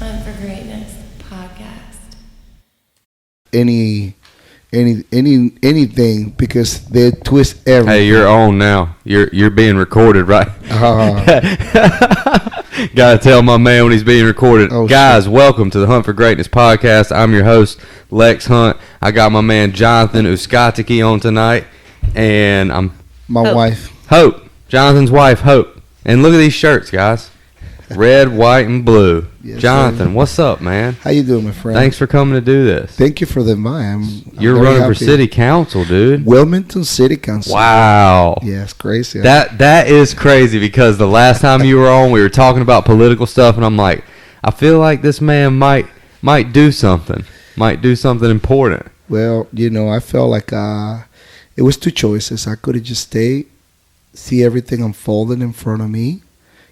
on for greatness podcast. any any any anything because they twist everything. Hey, you're Mm-hmm. on now. You're you're being recorded, right? Gotta tell my man when he's being recorded. Uh-huh. Oh, Guys, welcome to the Hunt for Greatness podcast. I'm your host, Lex Hunt. I got my man Jonathan Uskatiki on tonight, and I'm My Oh. wife. Hope, Jonathan's wife, Hope. And look at these shirts, guys. Red, white, and blue. Yes, Jonathan, what's up, man? How you doing, my friend? Thanks for coming to do this. Thank you for the invite. I'm, I'm You're very running for happy. city council, dude. Wilmington City Council. Wow. Yes, crazy. That that is crazy because the last time you were on, we were talking about political stuff, and I'm like, I feel like this man might might do something, might do something important. well, you know, I felt like uh, it was two choices. I could have just stayed, see everything unfolding in front of me,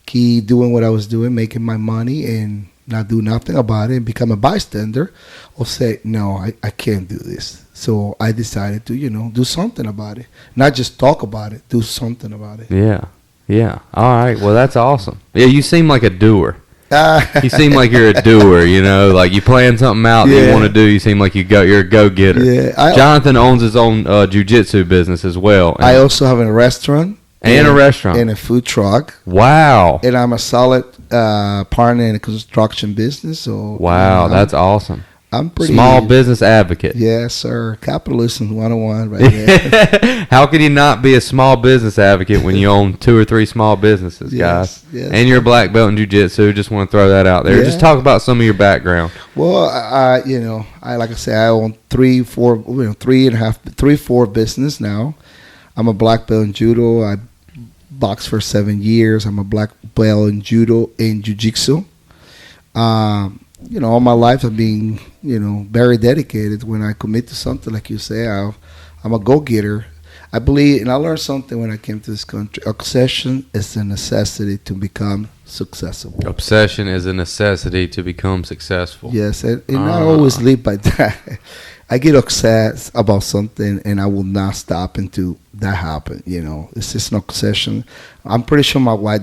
keep doing what I was doing, making my money, and not do nothing about it and become a bystander, or say, no, I, I can't do this. So I decided to, you know, do something about it. Not just talk about it, do something about it. Yeah, yeah. All right. Well, that's awesome. Yeah, you seem like a doer. Ah. You seem like you're a doer. You know, like you plan something out that Yeah. you want to do. You seem like you go. You're a go getter. Yeah, I- Jonathan owns his own uh, jujitsu business as well, and, I also have a restaurant and a restaurant. and a food truck, wow. and I'm a solid uh, partner in the construction business. So Wow, I'm- that's awesome. I'm pretty Small business advocate. Yes, sir. Capitalism 101 right there. How can you not be a small business advocate when you own two or three small businesses, Yes, guys? yes. And you're a black belt in jujitsu. Just want to throw that out there. Just Yeah. talk about some of your background. well, I, I- you know, I like I say, I own three, four, you know, three and a half, three, four business now. I'm a black belt in judo. I boxed for seven years. I'm a black belt in judo and jujitsu. Um, you know, all my life I've been, you know, very dedicated. When I commit to something, like you say, i I'm a go-getter. I believe, and I learned something when I came to this country. Obsession is a necessity to become successful. Obsession is a necessity to become successful. Yes, and, and I Ah. always live by that. I get obsessed about something, and I will not stop until that happen. You know, it's just an obsession. I'm pretty sure my wife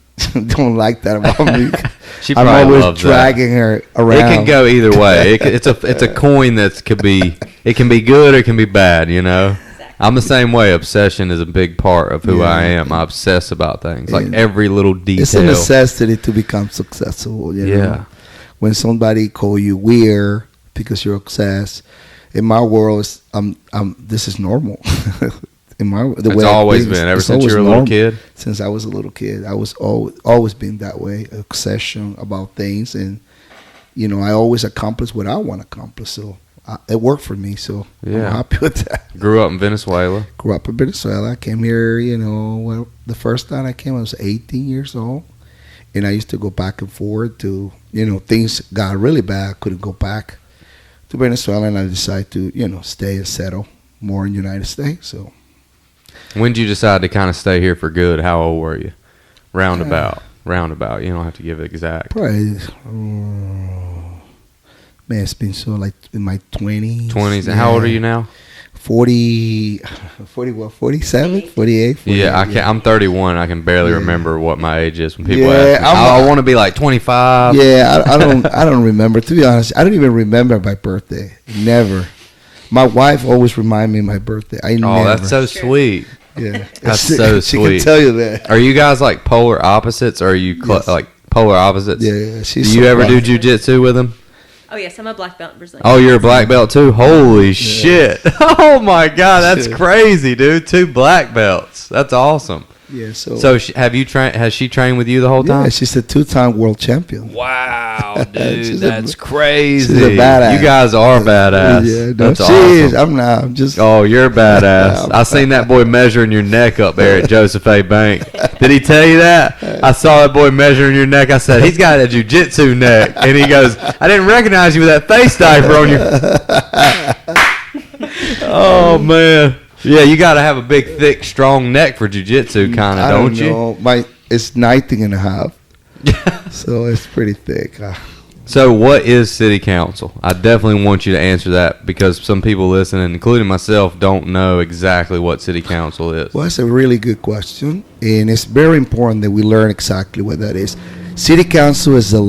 don't like that about me. She I'm probably always loves dragging her that. around. It can go either way. It, c- it's a it's a coin that could be it can be good or it can be bad. You know, I'm the same way. Obsession is a big part of who Yeah. I am. I obsess about things like And every little detail. It's a necessity to become successful. You know? Yeah. When somebody call you weird because you're obsessed, in my world, it's, um, um, this is normal. in my the It's way I always think, been ever it's since you always were a little normal. kid. since I was a little kid. I was always always been that way, obsession about things, and you know, I always accomplish what I want to accomplish. So I, it worked for me. So Yeah. I'm happy with that. Grew up in Venezuela. Grew up in Venezuela. I came here. You know, well, the first time I came, I was 18 years old, and I used to go back and forth to you know things got really bad. I couldn't go back to Venezuela, and I decided to you know stay and settle more in the United States. So. When did you decide to kind of stay here for good? How old were you? Roundabout. Roundabout. You don't have to give it exact. Probably, uh, um, man, it's been so like in my 20s. 20s. And how old are you now? 40, 40 what, 47, 48, Yeah, I can't. I'm 31. I can barely remember what my age is when people Yeah, ask me. I'm- "Oh, I want to be like 25. Yeah, I, I don't, I don't remember. To be honest, I don't even remember my birthday. Never. My wife always remind me of my birthday. I Oh, never. that's so sweet. yeah. that's so she sweet. can tell you that. Are you guys like polar opposites? Or are you cl- Yes. like polar opposites? Yeah, yeah, she's. Do you so ever do bright. jujitsu with him? Oh yes, I'm a black belt in Brazilian. Oh, you're a black belt too. Holy shit! Oh my god, that's Yeah. crazy, dude. Two black belts. That's awesome. Yeah, so. So sh- have you trained? Has she trained with you the whole time? yeah, she's a two-time world champion. Wow, She's dude, a- that's crazy. she's a badass. You guys are badass. Yeah, no, that's she awesome. is. I'm not. I'm just. Oh, you're badass. I seen that boy measuring your neck up there at Joseph A. Bank. Did he tell you that? I saw that boy measuring your neck. I said, he's got a jujitsu neck. And he goes, I didn't recognize you with that face diaper on you. oh, man. Yeah, you got to have a big, thick, strong neck for jujitsu, kind of, I don't, don't you? know. My it's 19 and a half, so it's pretty thick. Uh, So, what is city council? I definitely want you to answer that because some people listening, including myself, don't know exactly what city council is. well, that's a really good question, and it's very important that we learn exactly what that is. City council is the